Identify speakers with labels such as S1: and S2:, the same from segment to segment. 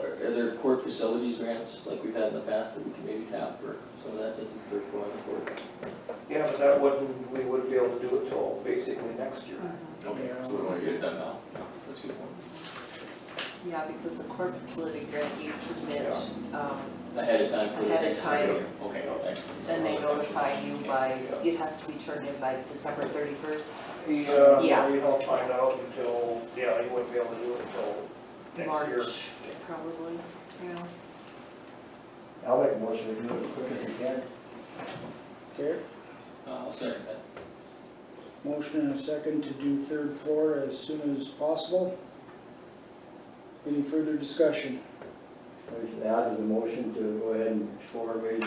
S1: are there court facilities grants like we've had in the past that we can maybe tap for some of that since it's third floor on the court?
S2: Yeah, but that wouldn't, we wouldn't be able to do it till basically next year.
S3: Mm. Mm-hmm.
S1: Okay, so we want to get it done now. That's a good point.
S3: Yeah, because the court facility grant you submit, um,
S1: Ahead of time for the
S3: Ahead of
S1: next year.
S3: time.
S1: Okay, oh, excellent.
S3: then they notify you by, it has to be turned in by December thirty-first,
S2: Yeah,
S3: Yeah.
S2: we don't find out until, yeah, you wouldn't be able to do it until next year.
S3: March, probably, yeah.
S4: I'll make a motion to do it as quick as we can.
S5: Okay,
S1: Uh, I'll second that.
S5: motion and a second to do third floor as soon as possible. Any further discussion?
S4: We should add to the motion to go ahead and explore maybe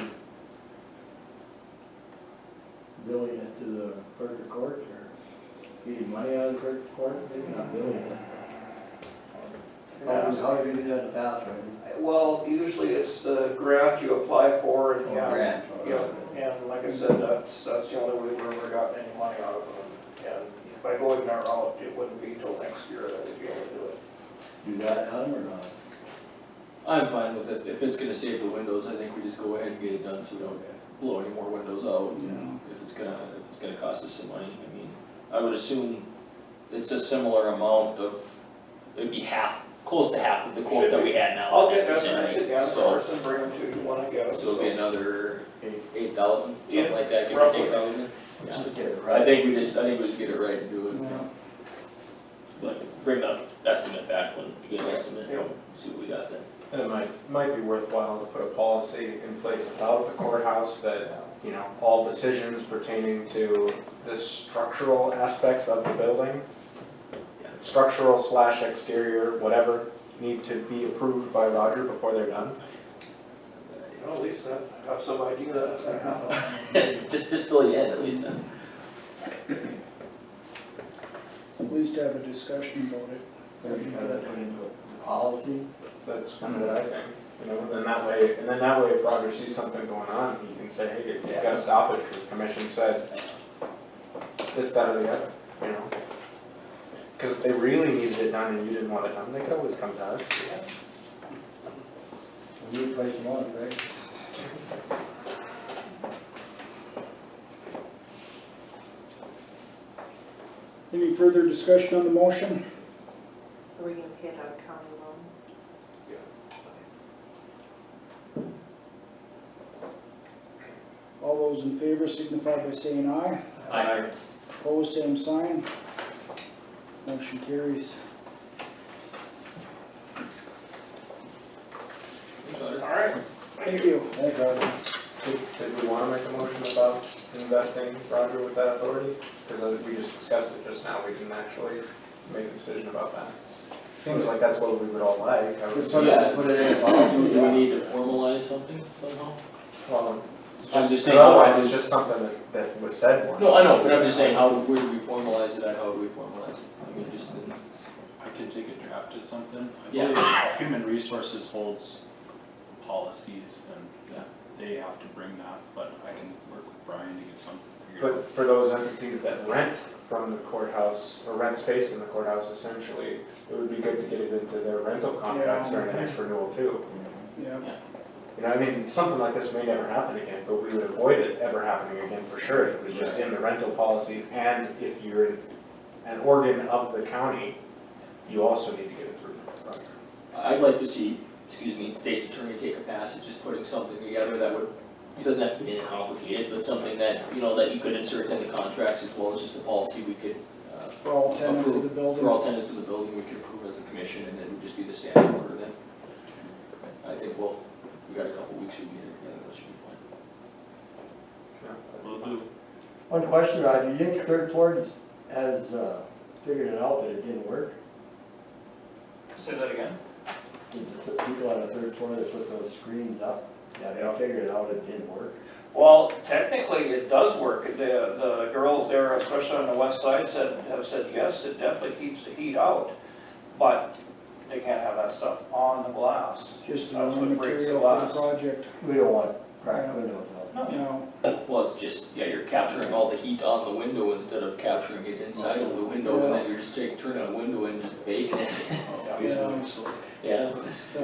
S4: billing it to the clerk of court or getting money out of the clerk of court, maybe not billing it. How do- How do you do Oh, that in the past, right?
S2: Well, usually it's the grant you apply for and, yeah.
S4: Oh, Grant.
S2: Yeah, and like I said, that's, that's the only way we've ever gotten any money out of them. And by going that route, it wouldn't be till next year that we'd be able to do it.
S4: You got it, Adam, or not?
S1: I'm fine with it. If it's gonna save the windows, I think we just go ahead and get it done so we don't blow any more windows out, you know?
S3: Mm-hmm.
S1: If it's gonna, if it's gonna cost us some money, I mean, I would assume it's a similar amount of, it'd be half, close to half of the quote that we had now.
S2: I'll get
S1: That's it,
S2: estimates
S1: right?
S2: again
S1: So-
S2: first and bring them to you when I get it,
S1: So
S2: so.
S1: it'll be another eight thousand, something
S2: Yeah,
S1: like that, give or
S2: roughly.
S1: take thousand.
S4: Just get it right.
S1: I think we just, I think we just get it right and do it. But bring the estimate back when you get an estimate,
S2: Yeah.
S1: see what we got then.
S6: And it might, might be worthwhile to put a policy in place about the courthouse that, you know, all decisions pertaining to the structural aspects of the building, structural slash exterior, whatever, need to be approved by Roger before they're done.
S2: You know, at least I have some idea that it's gonna happen.
S1: Just, just till the end at least then.
S5: At least have a discussion about it.
S4: Or you got that put into a policy?
S6: That's kind of what I think, you know, and that way, and then that way if Roger sees something going on, he can say, hey, you gotta stop it, the commission said this, that, or the other, you know? Cause if they really needed it done and you didn't want it done, they could always come to us.
S4: We need place one, right?
S5: Any further discussion on the motion?
S3: Are we gonna pay it out of county loan?
S5: All those in favor signify by saying aye.
S1: I,
S5: Opposed, same sign. Motion carries.
S2: All right,
S5: Thank you.
S4: Thanks, Roger.
S6: Did, did we wanna make a motion about investing Roger with that authority? Cause I- we just discussed it just now, we didn't actually make a decision about that. Seems like that's what we would all like, I
S4: Just
S6: was,
S4: sort of put it in a policy.
S1: do we need to formalize something somehow?
S6: well, it's
S1: I'm just
S6: just,
S1: saying-
S6: otherwise it's just something that, that was said once.
S1: No, I know, but I'm just saying, how, where do we formalize it and how do we formalize it? I mean, just in.
S7: I could take a draft at something. I
S1: Yeah.
S7: believe Human Resources holds policies and
S1: Yeah.
S7: they have to bring that, but I can work with Brian to get something figured out.
S6: But for those entities that rent from the courthouse, or rent space in the courthouse essentially, it would be good to get it into their rental contracts during the next renewal too.
S5: Yeah.
S6: You know, I mean, something like this may never happen again, but we would avoid it ever happening again for sure if it was just in the rental policies and if you're in an organ of the county, you also need to get it through. the contract.
S1: I'd like to see, excuse me, state's attorney take a pass at just putting something together that would, it doesn't have to be that complicated, but something that, you know, that you could insert into contracts as well as just a policy we could, uh,
S5: For all tenants of the
S1: for
S5: building.
S1: all tenants of the building, we could approve as a commission, and it would just be the standard order then. I think, well, we got a couple weeks, we can get it together, that should be fine.
S7: Will do.
S4: One question, Roger, you think third floor has, uh, figured it out that it didn't work?
S1: Say that again?
S4: The the people on the third floor that put those screens up, yeah, they all figured out it didn't work.
S2: well, technically it does work. The, the girls there, especially on the west side, said, have said, yes, it definitely keeps the heat out. But they can't have that stuff on the glass.
S5: Just the
S2: That's
S5: raw
S2: what breaks the
S5: material for
S2: glass.
S5: the project.
S4: We don't want cracked windows out.
S2: Oh,
S5: No,
S1: Well, it's just, yeah, you're capturing all the heat on the window instead of capturing it inside of the
S5: um,
S1: window, and then you're just taking, turning a window and just baking it.
S7: Oh,
S5: yeah.
S7: so-
S1: Yeah.